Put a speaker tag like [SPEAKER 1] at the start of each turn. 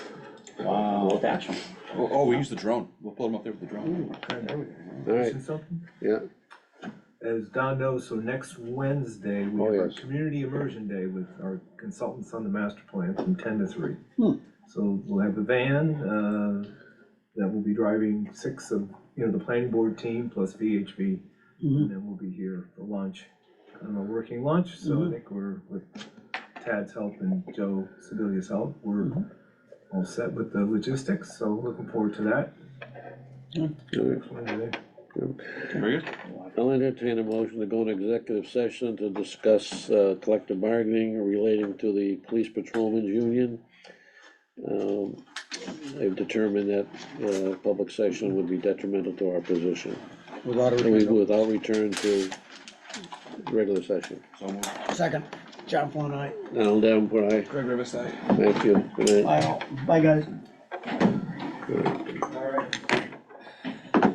[SPEAKER 1] both actually.
[SPEAKER 2] Oh, oh, we use the drone, we'll pull them up there with the drone.
[SPEAKER 3] Okay, there we go.
[SPEAKER 4] All right,
[SPEAKER 3] Missing something?
[SPEAKER 4] yeah,
[SPEAKER 3] As Don knows, so next Wednesday, we
[SPEAKER 4] Oh,
[SPEAKER 3] have our
[SPEAKER 4] yes.
[SPEAKER 3] community immersion day with our consultants on the master plan from ten to three.
[SPEAKER 4] Hmm.
[SPEAKER 3] So we'll have a van, uh, that will be driving six of, you know, the planning board team plus VHB.
[SPEAKER 4] Mm-hmm.
[SPEAKER 3] And then we'll be here for lunch, kind of a working lunch, so I
[SPEAKER 4] Mm-hmm.
[SPEAKER 3] think we're, with Tad's help and Joe Sebelia's help, we're
[SPEAKER 4] Mm-hmm.
[SPEAKER 3] all set with the logistics, so looking forward to that.
[SPEAKER 4] all right.
[SPEAKER 3] Next Wednesday.
[SPEAKER 2] Very good.
[SPEAKER 4] I'll entertain a motion to go into executive session to discuss uh, collective bargaining relating to the police patrolmen's union. Um, I've determined that uh, public session would be detrimental to our position,
[SPEAKER 5] Without
[SPEAKER 4] and we-
[SPEAKER 5] a
[SPEAKER 4] without return to regular session.
[SPEAKER 2] So moved.
[SPEAKER 5] second, John Paul and
[SPEAKER 4] Al Davenport, aye.
[SPEAKER 2] Craig Rivers, aye.
[SPEAKER 4] Thank you. Good
[SPEAKER 5] I,
[SPEAKER 4] night.
[SPEAKER 5] bye guys.